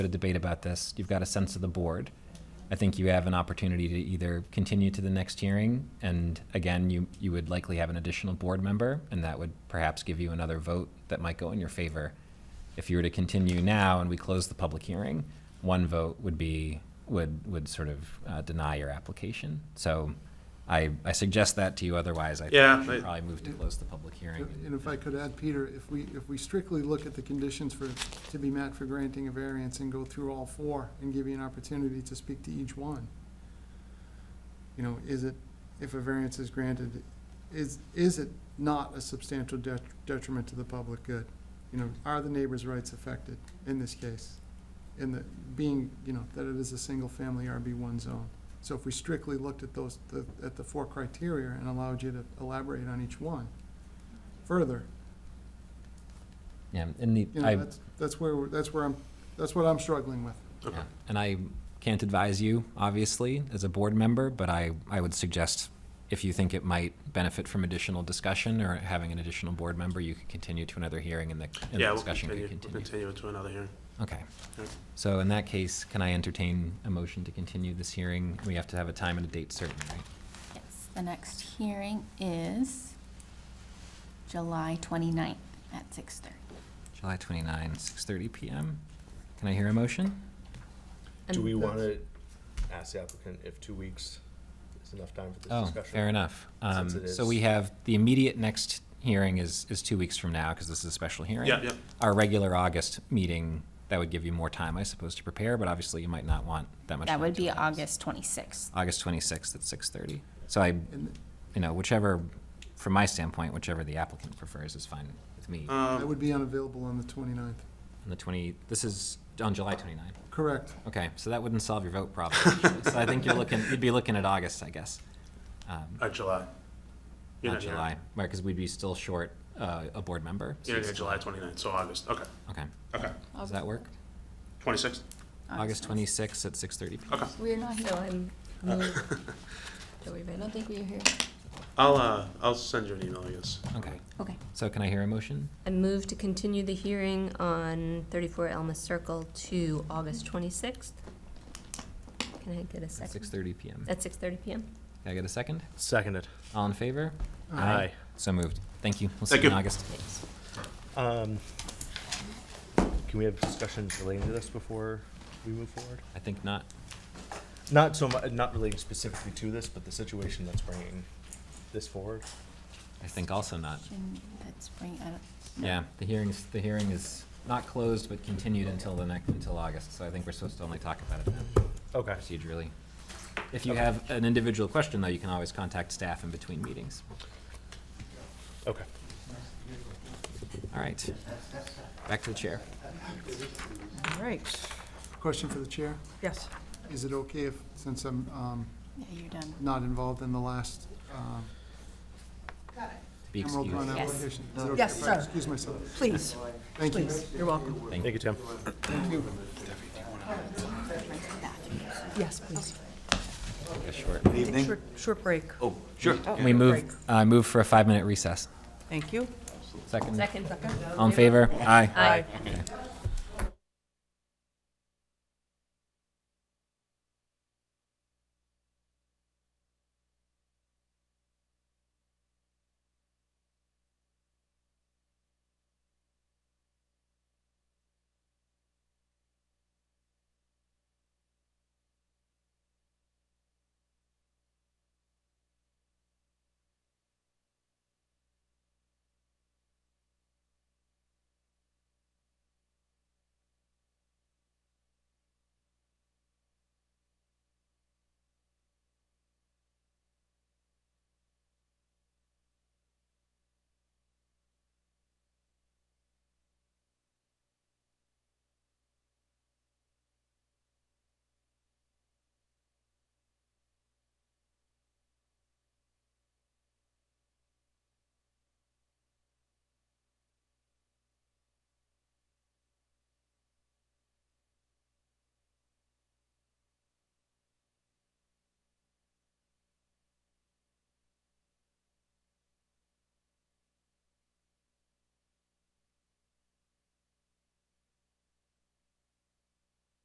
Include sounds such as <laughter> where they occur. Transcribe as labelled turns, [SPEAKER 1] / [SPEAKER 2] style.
[SPEAKER 1] bit of debate about this. You've got a sense of the board. I think you have an opportunity to either continue to the next hearing, and again, you, you would likely have an additional board member, and that would perhaps give you another vote that might go in your favor. If you were to continue now and we close the public hearing, one vote would be, would, would sort of uh, deny your application. So I, I suggest that to you, otherwise I think
[SPEAKER 2] Yeah,
[SPEAKER 1] we should
[SPEAKER 2] I-
[SPEAKER 1] probably move to close the public hearing.
[SPEAKER 3] And if I could add, Peter, if we, if we strictly look at the conditions for, to be met for granting a variance and go through all four and give you an opportunity to speak to each one. You know, is it, if a variance is granted, is, is it not a substantial det- detriment to the public good? You know, are the neighbors' rights affected in this case? In the, being, you know, that it is a single-family RB one zone. So if we strictly looked at those, the- at the four criteria and allowed you to elaborate on each one, further.
[SPEAKER 1] Yeah, and the,
[SPEAKER 3] You
[SPEAKER 1] I.
[SPEAKER 3] know, that's, that's where, we're- that's where I'm, that's what I'm struggling with.
[SPEAKER 1] Yeah. And I can't advise you, obviously, as a board member, but I, I would suggest if you think it might benefit from additional discussion or having an additional board member, you could continue to another hearing and the, and the
[SPEAKER 2] Yeah, we'll
[SPEAKER 1] discussion
[SPEAKER 2] continue,
[SPEAKER 1] could
[SPEAKER 2] we'll
[SPEAKER 1] continue.
[SPEAKER 2] continue it to another hearing.
[SPEAKER 1] Okay.
[SPEAKER 2] Yep.
[SPEAKER 1] So in that case, can I entertain a motion to continue this hearing? We have to have a time and a date certain, right?
[SPEAKER 4] Yes, the next hearing is July 29th at 6:30.
[SPEAKER 1] July 29, 6:30 PM. Can I hear a motion?
[SPEAKER 5] Do
[SPEAKER 6] And
[SPEAKER 5] we want to
[SPEAKER 3] that's-
[SPEAKER 5] ask the applicant if two weeks is enough time for this
[SPEAKER 1] Oh,
[SPEAKER 5] discussion?
[SPEAKER 1] fair enough. Um,
[SPEAKER 5] Since it
[SPEAKER 1] So
[SPEAKER 5] is-
[SPEAKER 1] we have, the immediate next hearing is, is two weeks from now, because this is a special hearing.
[SPEAKER 2] Yeah, yeah.
[SPEAKER 1] Our regular August meeting, that would give you more time, I suppose, to prepare, but obviously you might not want that much.
[SPEAKER 4] That
[SPEAKER 1] time
[SPEAKER 4] would be
[SPEAKER 1] till
[SPEAKER 4] August 26th.
[SPEAKER 1] August 26th at 6:30. So I,
[SPEAKER 3] And
[SPEAKER 1] you know, whichever, from my standpoint, whichever the applicant prefers is fine with me. On
[SPEAKER 3] I
[SPEAKER 2] Um,
[SPEAKER 3] would be unavailable on the 29th.
[SPEAKER 1] the 20, this is on July 29.
[SPEAKER 3] Correct.
[SPEAKER 1] Okay, so that wouldn't solve your vote problem. <laughs> So I think you're looking, you'd be looking at August, I guess. Um,
[SPEAKER 2] or uh, July. You're
[SPEAKER 1] Not
[SPEAKER 2] here.
[SPEAKER 1] July, right, because we'd be still short uh, a board member. so
[SPEAKER 2] You're not
[SPEAKER 1] it's
[SPEAKER 2] here July twenty-ninth, so August, okay,
[SPEAKER 1] still- Okay,
[SPEAKER 2] okay.
[SPEAKER 1] does that work?
[SPEAKER 2] Twenty-sixth?
[SPEAKER 1] August 26th at 6:30 PM.
[SPEAKER 2] Okay.
[SPEAKER 6] We're not here. So I'm
[SPEAKER 2] Uh.
[SPEAKER 6] moved. Joey, but I don't think we're here.
[SPEAKER 2] <laughs> I'll, uh, I'll send you an email, I guess.
[SPEAKER 1] Okay,
[SPEAKER 4] Okay.
[SPEAKER 1] so can I hear a motion?
[SPEAKER 6] I move to continue the hearing on 34 Elma Circle to August 26th. Can I get a
[SPEAKER 1] At
[SPEAKER 6] second?
[SPEAKER 1] 6:30 PM. Can
[SPEAKER 6] At 6:30 PM?
[SPEAKER 1] I get a second?
[SPEAKER 5] Seconded.
[SPEAKER 1] All in favor?
[SPEAKER 5] Aye.
[SPEAKER 1] So moved. Thank you. We'll see
[SPEAKER 2] Thank
[SPEAKER 1] you in
[SPEAKER 2] you.
[SPEAKER 1] August.
[SPEAKER 6] Thanks.
[SPEAKER 5] Um, Can we have discussions relating to this before we move forward?
[SPEAKER 1] I think not.
[SPEAKER 5] Not so mu, not relating specifically to this, but the situation that's bringing this forward.
[SPEAKER 1] I think also not.
[SPEAKER 4] Can- Let's bring, I don't- no.
[SPEAKER 1] Yeah, the hearings, the hearing is not closed, but continued until the next, until August. So I think we're supposed to only talk about it then,
[SPEAKER 5] Okay.
[SPEAKER 1] procedurally. If you have an individual question, though, you can always contact staff in between meetings.
[SPEAKER 5] Okay.
[SPEAKER 1] All right. Back to the chair.
[SPEAKER 7] All right,
[SPEAKER 3] Question for the chair.
[SPEAKER 7] yes.
[SPEAKER 3] Is it okay if, since I'm um,
[SPEAKER 4] Yeah, you're done.
[SPEAKER 3] not involved in the last um,
[SPEAKER 1] Be
[SPEAKER 3] Emerald Run
[SPEAKER 1] excused.
[SPEAKER 4] Yes.
[SPEAKER 3] application? is it okay
[SPEAKER 7] Yes,
[SPEAKER 3] if I
[SPEAKER 7] sir.
[SPEAKER 3] Excuse myself.
[SPEAKER 7] Please,
[SPEAKER 3] Thank you.
[SPEAKER 7] please, you're welcome.
[SPEAKER 5] Thank you, Tim.
[SPEAKER 7] Yes, please.
[SPEAKER 1] A short-
[SPEAKER 7] Take short- Short break. Oh,
[SPEAKER 1] We move, I move for a five-minute recess.
[SPEAKER 7] Thank you.
[SPEAKER 1] Second,
[SPEAKER 6] Second.
[SPEAKER 1] all in favor? Aye.
[SPEAKER 6] Aye.